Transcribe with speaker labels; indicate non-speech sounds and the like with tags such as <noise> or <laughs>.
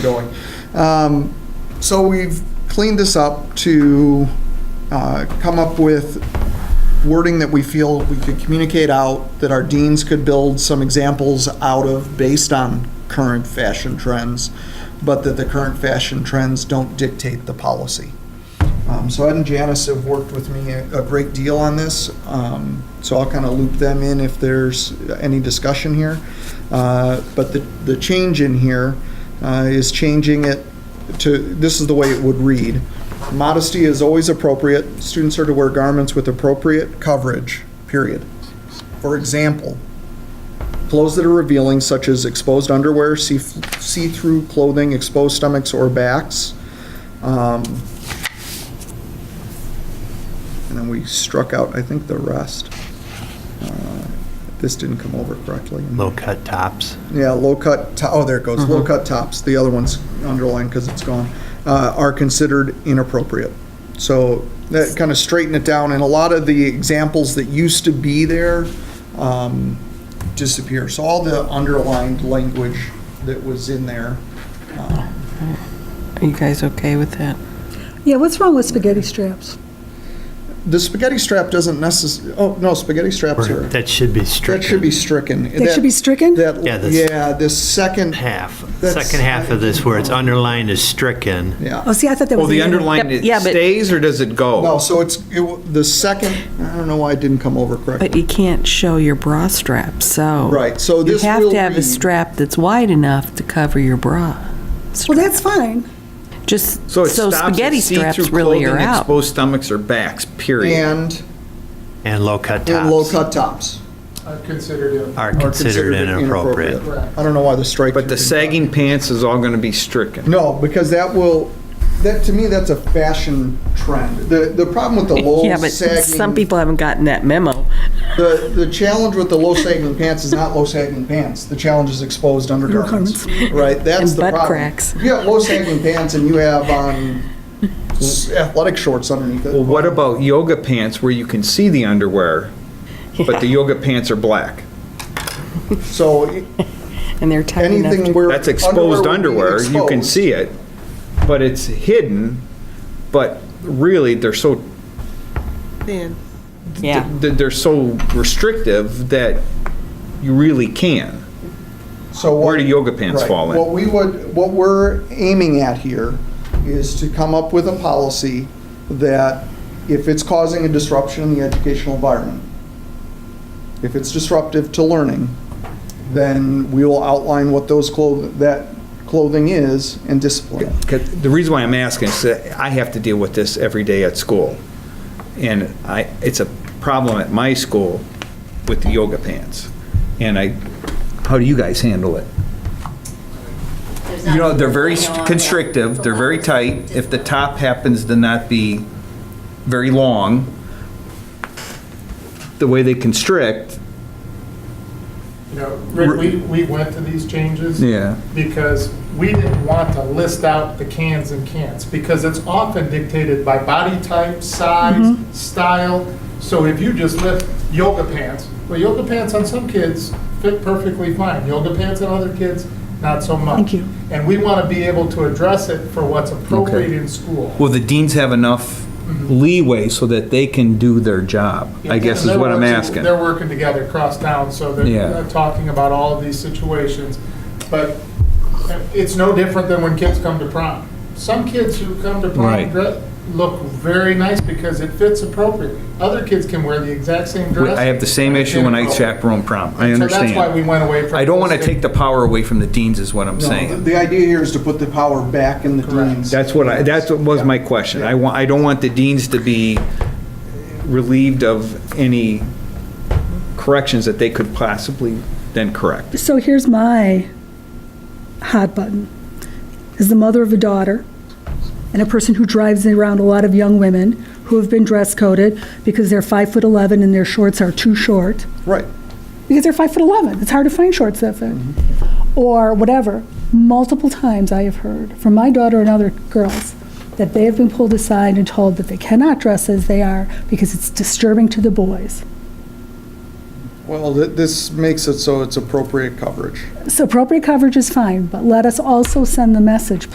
Speaker 1: going. Um, So we've cleaned this up to uh, come up with wording that we feel we could communicate out, that our deans could build some examples out of based on current fashion trends, but that the current fashion trends don't dictate the policy. Um, So Ed and Janice have worked with me a a great deal on this, um, so I'll kind of loop them in if there's any discussion here. Uh, But the, the change in here uh, is changing it to, this is the way it would read. Modesty is always appropriate. Students are to wear garments with appropriate coverage, period. For example, Clothes that are revealing, such as exposed underwear, see- see-through clothing, exposed stomachs or backs. Um, And then we struck out, I think, the rest. Uh, This didn't come over correctly.
Speaker 2: low-cut tops.
Speaker 1: Yeah, low-cut, to- oh, there it goes,
Speaker 2: Mm-hmm.
Speaker 1: low-cut tops, the other one's underlined because it's gone, uh, are considered inappropriate. So that kind of straightened it down, and a lot of the examples that used to be there um, disappear. So all the underlined language that was in there,
Speaker 3: Are you guys okay with that?
Speaker 4: Yeah, what's wrong with spaghetti straps?
Speaker 1: the spaghetti strap doesn't necess, oh, no, spaghetti straps are,
Speaker 2: That should be
Speaker 1: that should
Speaker 2: stricken.
Speaker 1: be stricken.
Speaker 4: They should be stricken?
Speaker 1: That,
Speaker 2: Yeah, that's-
Speaker 1: yeah, this second,
Speaker 2: Half,
Speaker 1: That's- um,
Speaker 2: second half of this where it's underlined is stricken.
Speaker 1: yeah.
Speaker 4: Oh, see, I thought that was.
Speaker 5: Well, the
Speaker 4: other one.
Speaker 5: underline
Speaker 3: Yep,
Speaker 5: it
Speaker 3: yeah, but-
Speaker 5: stays or does it
Speaker 2: Oh.
Speaker 5: go?
Speaker 1: No, so it's, it w- the second, I don't know why it didn't come over correctly.
Speaker 3: But you can't show your bra strap, so.
Speaker 1: Right, so this
Speaker 3: Oh. You have
Speaker 1: will
Speaker 3: to have
Speaker 1: be-
Speaker 3: a strap that's wide enough to cover your bra.
Speaker 4: Well, that's fine.
Speaker 3: Just, so
Speaker 5: So it stops at
Speaker 3: spaghetti
Speaker 5: see-through
Speaker 3: straps really are
Speaker 5: clothing,
Speaker 3: out.
Speaker 5: Exposed stomachs or backs, period.
Speaker 1: And,
Speaker 2: And
Speaker 1: and
Speaker 2: low-cut tops
Speaker 1: low-cut tops.
Speaker 6: I considered it.
Speaker 2: are considered inappropriate.
Speaker 1: I don't know why the strike.
Speaker 5: But the sagging pants is all going to be stricken.
Speaker 1: No, because that will, that, to me, that's a fashion trend. The, the problem with the low
Speaker 3: <laughs> Yeah, but some
Speaker 1: sagging,
Speaker 3: people haven't gotten that memo.
Speaker 1: the, the challenge with the low sagging pants is not low sagging pants. The challenge is exposed undergarments, right? That's
Speaker 3: And
Speaker 1: the
Speaker 3: butt
Speaker 1: problem.
Speaker 3: cracks.
Speaker 1: You have low sagging pants and you have
Speaker 3: <laughs>
Speaker 1: on s- athletic shorts underneath it.
Speaker 5: Well, what about yoga pants where you can see the underwear, but the yoga pants are black?
Speaker 1: So
Speaker 3: And they're tight enough
Speaker 1: anything
Speaker 3: to.
Speaker 1: where.
Speaker 5: That's exposed
Speaker 1: would
Speaker 5: underwear,
Speaker 1: be
Speaker 5: you can
Speaker 1: exposed.
Speaker 5: see it, but it's hidden, but really, they're so,
Speaker 3: Yeah.
Speaker 5: th- they're so restrictive that you really can.
Speaker 1: So
Speaker 5: Where
Speaker 1: what-
Speaker 5: do yoga pants
Speaker 1: right.
Speaker 5: fall in?
Speaker 1: What we would, what we're aiming at here is to come up with a policy that if it's causing a disruption in the educational environment, if it's disruptive to learning, then we will outline what those clothing, that clothing is and discipline. it.
Speaker 5: 'Cause The reason why I'm asking is that I have to deal with this every day at school. And I, it's a problem at my school with the yoga pants. And I, how do you guys handle it? You know, they're very constrictive, they're very tight. If the top happens to not be very long, the way they constrict,
Speaker 6: You know, Rick, we, we went to these changes.
Speaker 5: Yeah.
Speaker 6: Because we didn't want to list out the cans and can'ts, because it's often dictated by body type, size, style. So if you just lift yoga pants, well, yoga pants on some kids fit perfectly fine. Yoga pants on other kids, not so much.
Speaker 4: Thank you.
Speaker 6: And we want to be able to address it for what's appropriate
Speaker 5: Okay.
Speaker 6: in school.
Speaker 5: will the deans have enough
Speaker 6: Mm-hmm.
Speaker 5: leeway so that they can do their job? I guess is
Speaker 6: They're
Speaker 5: what I'm
Speaker 6: working-
Speaker 5: asking.
Speaker 6: They're working together across town, so
Speaker 5: Yeah.
Speaker 6: they're uh, talking about all of these situations. But it's no different than when kids come to prom. Some kids who come to prom
Speaker 5: Right.
Speaker 6: dre- look very nice because it fits appropriately. Other kids can wear the exact same dress.
Speaker 5: I have the same issue when I chaperone prom. I
Speaker 6: So that's why we
Speaker 5: understand.
Speaker 6: went away from.
Speaker 5: I don't want to
Speaker 6: those
Speaker 5: take the power away from the deans is what I'm
Speaker 1: No,
Speaker 5: saying.
Speaker 1: The idea here is to put the power back in the dean's.
Speaker 5: That's what I, that's what was my question. I want, I don't want the deans to be relieved of any corrections that they could possibly then correct.
Speaker 4: So here's my hot button. As the mother of a daughter and a person who drives around a lot of young women who have been dress coded because they're five foot 11 and their shorts are too short,
Speaker 1: Right.
Speaker 4: because they're five foot 11, it's hard to find shorts that fit, or whatever. Multiple times I have heard from my daughter and other girls that they have been pulled aside and told that they cannot dress as they are because it's disturbing to the boys.
Speaker 1: Well, th- this makes it so it's appropriate coverage.
Speaker 4: So appropriate coverage is fine, but let us also send the message,